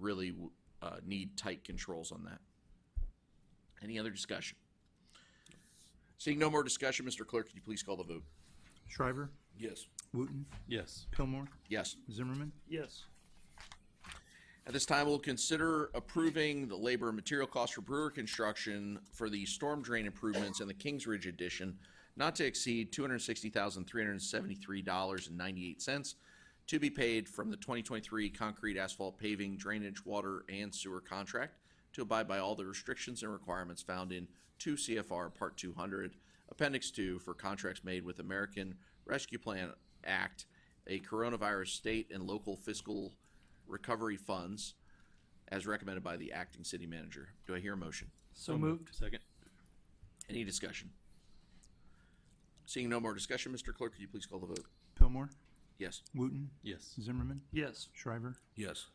really uh, need tight controls on that. Any other discussion? Seeing no more discussion, Mr. Clerk, could you please call the vote? Shriver, Yes. Wooten, Yes. Pillmore, Yes. Zimmerman, yes, At this time, we'll consider approving the labor and material cost for Brewer Construction for the storm drain improvements and the Kings Ridge addition not to exceed two hundred and sixty thousand, three hundred and seventy-three dollars and ninety-eight cents to be paid from the twenty twenty-three concrete asphalt paving drainage water and sewer contract to abide by all the restrictions and requirements found in two CFR Part two hundred, Appendix two for contracts made with American Rescue Plan Act, a coronavirus state and local fiscal recovery funds as recommended by the acting city manager. Do I hear a motion? So moved. Second. Any discussion? Seeing no more discussion, Mr. Clerk, could you please call the vote? Pillmore, Yes. Wooten, Yes. Zimmerman, yes, Shriver, Yes.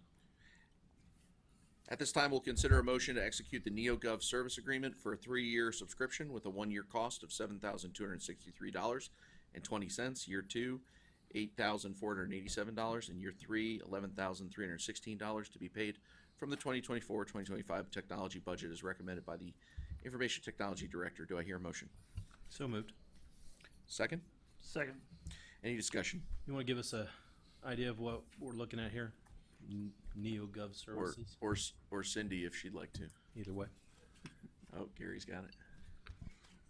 At this time, we'll consider a motion to execute the NeoGov service agreement for a three-year subscription with a one-year cost of seven thousand two hundred sixty-three dollars and twenty cents, year two, eight thousand four hundred eighty-seven dollars, and year three, eleven thousand three hundred sixteen dollars to be paid from the 2024-2025 technology budget as recommended by the Information Technology Director. Do I hear a motion? So moved. Second? second, Any discussion? You want to give us a idea of what we're looking at here? N- NeoGov Or, services. or, or Cindy, if she'd like to. Either way. Oh, Gary's got it.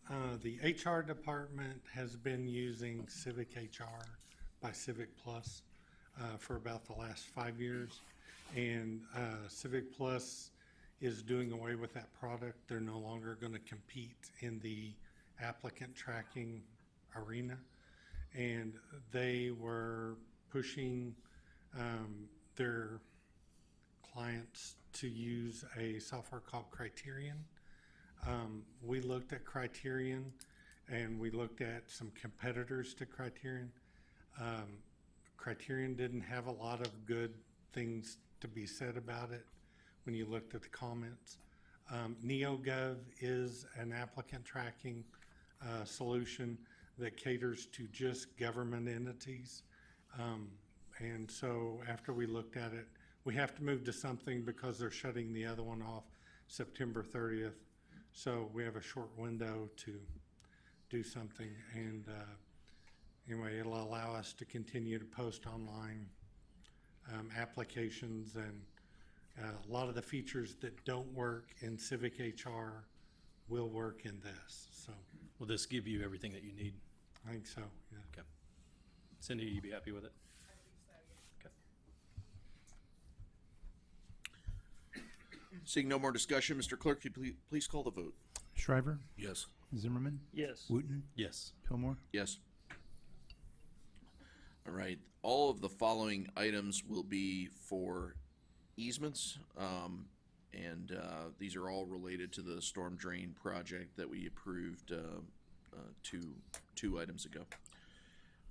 Uh, the HR department has been using Civic HR by Civic Plus uh, for about the last five years. And uh, Civic Plus is doing away with that product. They're no longer going to compete in the applicant tracking arena. And they were pushing um, their clients to use a software called Criterion. Um, we looked at Criterion and we looked at some competitors to Criterion. Um, Criterion didn't have a lot of good things to be said about it when you looked at the comments. Um, NeoGov is an applicant tracking uh, solution that caters to just government entities. Um, and so after we looked at it, we have to move to something because they're shutting the other one off September 30th. So we have a short window to do something. And uh, anyway, it'll allow us to continue to post online um, applications and uh, a lot of the features that don't work in Civic HR will work in this. So Will this give you everything that you need? I think so, yeah. Cindy, you be happy with it? Seeing no more discussion, Mr. Clerk, could you ple- please call the vote? Shriver, Yes. Zimmerman, yes, Wooten, Yes. Pillmore, Yes. All right, all of the following items will be for easements. Um, and, uh, these are all related to the storm drain project that we approved, uh, uh, two, two items ago.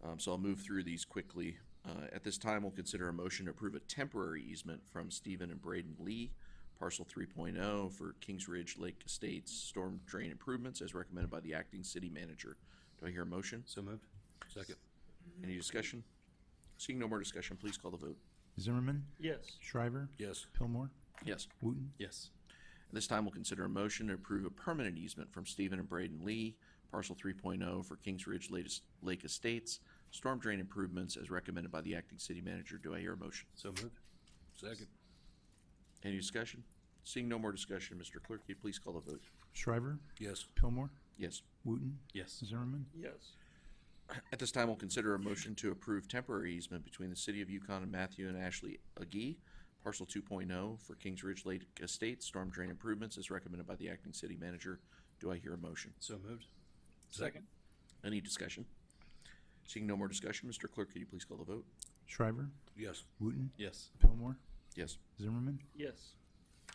Um, so I'll move through these quickly. Uh, at this time, we'll consider a motion to approve a temporary easement from Stephen and Braden Lee, parcel 3.0 for Kings Ridge Lake Estates storm drain improvements as recommended by the acting city manager. Do I hear a motion? So moved. Second. Any discussion? Seeing no more discussion, please call the vote. Zimmerman, yes, Shriver, Yes. Pillmore, Yes. Wooten, Yes. At This time, we'll consider a motion to approve a permanent easement from Stephen and Braden Lee, parcel 3.0 for Kings Ridge latest- Lake Estates storm drain improvements as recommended by the acting city manager. Do I hear a motion? So moved. Second. Any discussion? Seeing no more discussion, Mr. Clerk, could you please call the vote? Shriver, Yes. Pillmore, Yes. Wooten, Yes. Zimmerman, yes, At this time, we'll consider a motion to approve temporary easement between the City of Yukon and Matthew and Ashley Agee, parcel 2.0 for Kings Ridge Lake Estates storm drain improvements as recommended by the acting city manager. Do I hear a motion? So moved. Second. Any discussion? Seeing no more discussion, Mr. Clerk, could you please call the vote? Shriver, Yes. Wooten, Yes. Pillmore, Yes. Zimmerman, yes,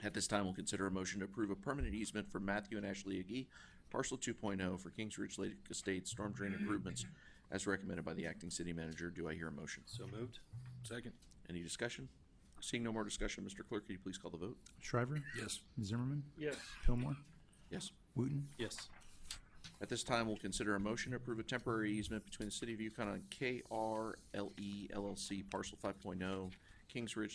At this time, we'll consider a motion to approve a permanent easement for Matthew and Ashley Agee, parcel 2.0 for Kings Ridge Lake Estates storm drain improvements as recommended by the acting city manager. Do I hear a motion? So moved. Second. Any discussion? Seeing no more discussion, Mr. Clerk, could you please call the vote? Shriver, Yes. Zimmerman, yes, Pillmore, Yes. Wooten, Yes. At this time, we'll consider a motion to approve a temporary easement E between the City of Yukon and KRLE LLC parcel 5.0 oh, Kings Ridge